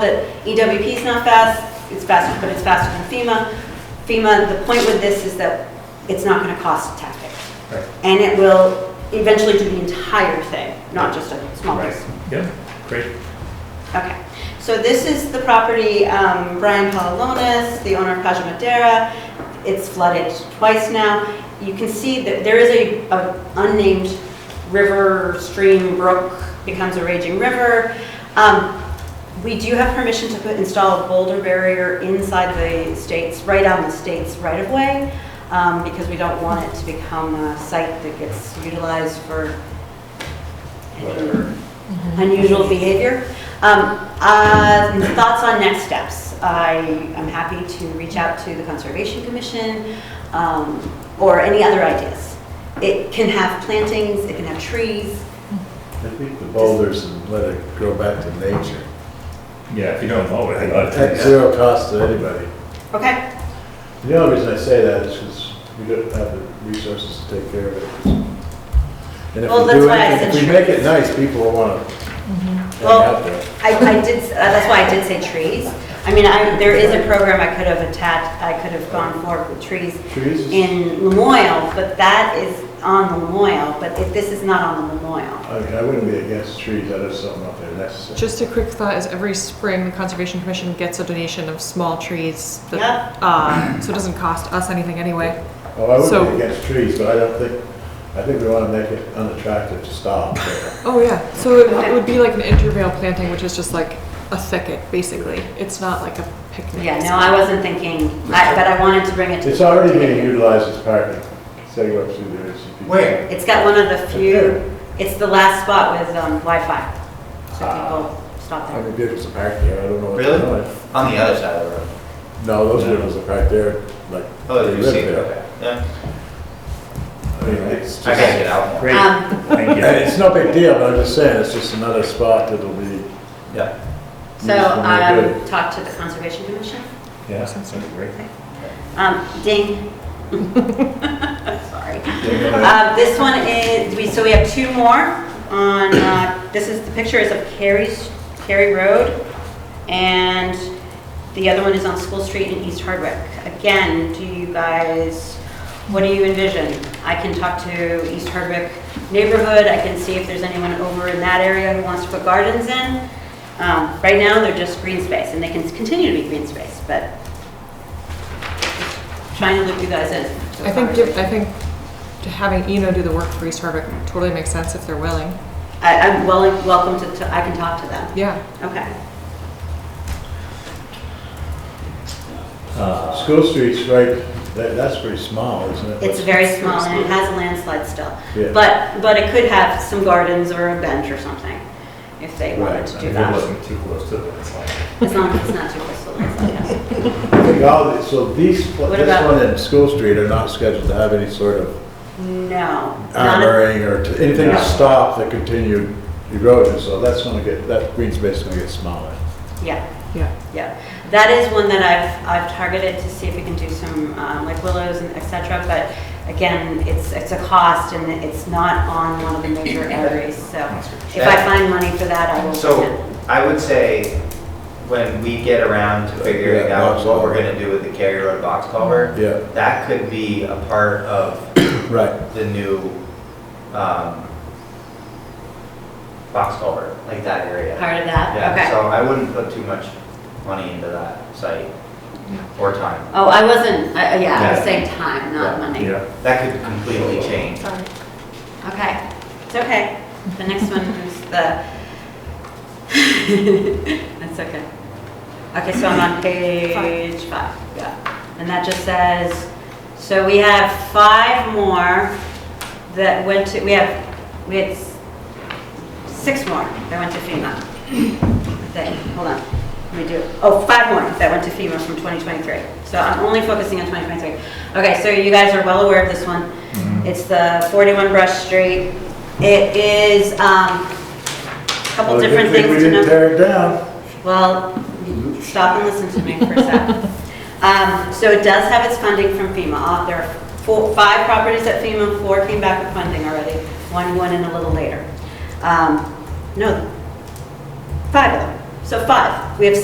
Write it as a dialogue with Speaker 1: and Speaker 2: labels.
Speaker 1: that EWP E is not fast, it's faster, but it's faster than FEMA. FEMA, the point with this is that it's not going to cost taxpayers.
Speaker 2: Right.
Speaker 1: And it will eventually do the entire thing, not just a small piece.
Speaker 2: Right, yeah, great.
Speaker 1: Okay, so this is the property, um, Brian Palalonis, the owner of Paja Madera. It's flooded twice now. You can see that there is a, a unnamed river, stream, brook, becomes a raging river. Um, we do have permission to put, install a boulder barrier inside the states, right on the state's right of way, um, because we don't want it to become a site that gets utilized for
Speaker 2: Whatever.
Speaker 1: unusual behavior. Um, uh, Thoughts on next steps? I am happy to reach out to the Conservation Commission um, or any other ideas. It can have plantings, it can have trees.
Speaker 3: I think the boulders and let it grow back to nature.
Speaker 2: Yeah, if you don't know it, I'd
Speaker 3: At zero cost to anybody.
Speaker 1: Okay,
Speaker 3: The only reason I say that is because we don't have the resources to take care of it. And if
Speaker 1: Well,
Speaker 3: we do
Speaker 1: that's why I
Speaker 3: anything-
Speaker 1: said
Speaker 3: If we
Speaker 1: trees.
Speaker 3: make it nice, people will want to hang
Speaker 1: Well,
Speaker 3: out there.
Speaker 1: I I did, uh, that's why I did say trees. I mean, I, there is a program I could have attached, I could have gone forward with trees
Speaker 3: Trees is,
Speaker 1: in Lemoyle, but that is on Lemoyle, but if this is not on Lemoyle.
Speaker 3: I mean, I wouldn't be against trees, that is something up there necessary.
Speaker 4: Just a quick thought is every spring, the Conservation Commission gets a donation of small trees. that-
Speaker 1: Yep.
Speaker 4: uh, So it doesn't cost us anything anyway.
Speaker 3: Oh, I
Speaker 4: so-
Speaker 3: wouldn't be against trees, but I don't think, I think we want to make it unattractive to stop there.
Speaker 4: Oh, yeah. So it it would be like an intervale planting, which is just like a thicket, basically. It's not like a picnic.
Speaker 1: Yeah, no, I wasn't thinking, I- but I wanted to bring it to.
Speaker 3: It's already being utilized as parking, setting up through there. so people-
Speaker 2: Where?
Speaker 1: It's got one of the
Speaker 3: Sure.
Speaker 1: few, it's the last spot with um, Wi-Fi, so
Speaker 3: Ah.
Speaker 1: people stop
Speaker 3: How
Speaker 1: there.
Speaker 3: many vehicles are parked there? I don't know. what they're
Speaker 2: Really?
Speaker 3: doing.
Speaker 2: On the other side of the road.
Speaker 3: No, those
Speaker 2: No.
Speaker 3: windows are right there, like.
Speaker 2: Oh,
Speaker 3: they
Speaker 2: you
Speaker 3: live
Speaker 2: see it,
Speaker 3: there.
Speaker 2: okay. Yeah,
Speaker 3: I mean, it's just,
Speaker 2: I gotta get out more.
Speaker 5: Great,
Speaker 1: Um,
Speaker 5: thank
Speaker 3: and
Speaker 5: you.
Speaker 3: it's no big deal, but I'm just saying, it's just another spot that'll be used
Speaker 2: Yeah,
Speaker 1: So
Speaker 3: when they're
Speaker 1: um,
Speaker 3: good.
Speaker 1: talk to the Conservation Commission.
Speaker 5: Yeah, sounds great.
Speaker 1: Um, Ding. Sorry. Uh, This one is, we so we have two more on, uh, this is, the picture is of Carey's, Carey Road, and the other one is on School Street in East Hardwick. Again, do you guys, what do you envision? I can talk to East Hardwick neighborhood, I can see if there's anyone over in that area who wants to put gardens in. Um, Right now, they're just green space, and they can continue to be green space, but trying to loop you guys in. to a
Speaker 4: I think, give-
Speaker 1: conversation.
Speaker 4: I think to having Eno do the work for East Hardwick totally makes sense if they're willing.
Speaker 1: I, I'm well, welcome to, to- I can talk to them.
Speaker 4: Yeah.
Speaker 1: Okay.
Speaker 5: Uh,
Speaker 3: School Street's right, that, that's pretty small, isn't it?
Speaker 1: It's very small and it has a landslide still.
Speaker 3: Yeah.
Speaker 1: But, but it could have some gardens or a bench or something if they wanted
Speaker 3: Right,
Speaker 1: to
Speaker 5: If
Speaker 1: do
Speaker 5: it
Speaker 1: that.
Speaker 5: wasn't too close to the landslide.
Speaker 1: As long as it's not too close to the landslide.
Speaker 3: I think all, the- so these, pla-
Speaker 1: What
Speaker 3: this
Speaker 1: about-
Speaker 3: one and School Street are not scheduled to have any sort of
Speaker 1: No. not a-
Speaker 3: armoring or t- anything
Speaker 5: No.
Speaker 3: to stop the continued erosion, so that's gonna get, that green space is gonna get smaller.
Speaker 1: Yeah,
Speaker 4: Yeah.
Speaker 1: yeah. That is one that I've, I've targeted to see if we can do some, um, like willows and et cetera. But again, it's, it's a cost and it's not on one of the major areas. So if I find money for that, I will.
Speaker 6: So I would say, when we get around to figuring
Speaker 3: Yeah, box
Speaker 6: out what we're
Speaker 3: culvert.
Speaker 6: gonna do with the Cary Road box culvert,
Speaker 3: Yeah,
Speaker 6: that could be a part of
Speaker 3: right,
Speaker 6: the new, um, box culvert, like that area.
Speaker 1: Part of that, okay.
Speaker 6: Yeah, so I wouldn't put too much money into that site or time.
Speaker 1: Oh, I wasn't, I- I- yeah, I was
Speaker 6: Yeah.
Speaker 1: saying time, not
Speaker 6: Yeah.
Speaker 1: money.
Speaker 5: Yeah,
Speaker 6: That could completely change.
Speaker 1: Okay, it's okay. The next one is the, that's okay. Okay, so I'm on page five, yeah. And that just says, so we have five more that went to, we have, we had s- six more that went to FEMA. That- Hold on, let me do, oh, five more that went to FEMA from 2023. So I'm only focusing on 2023. Okay, so you guys are well aware of this one.
Speaker 3: Mm-hmm.
Speaker 1: It's the 41 Brush Street. It is um, a couple
Speaker 3: Well, good
Speaker 1: different
Speaker 3: thing
Speaker 1: things to know.
Speaker 3: Uh, We didn't tear it down,
Speaker 1: Well, stop and listen to me for a sec. Um, So it does have its funding from FEMA. Uh, There are four, five properties at FEMA, four came back with funding already, one went in a little later. Um, No, five of them. So five. We have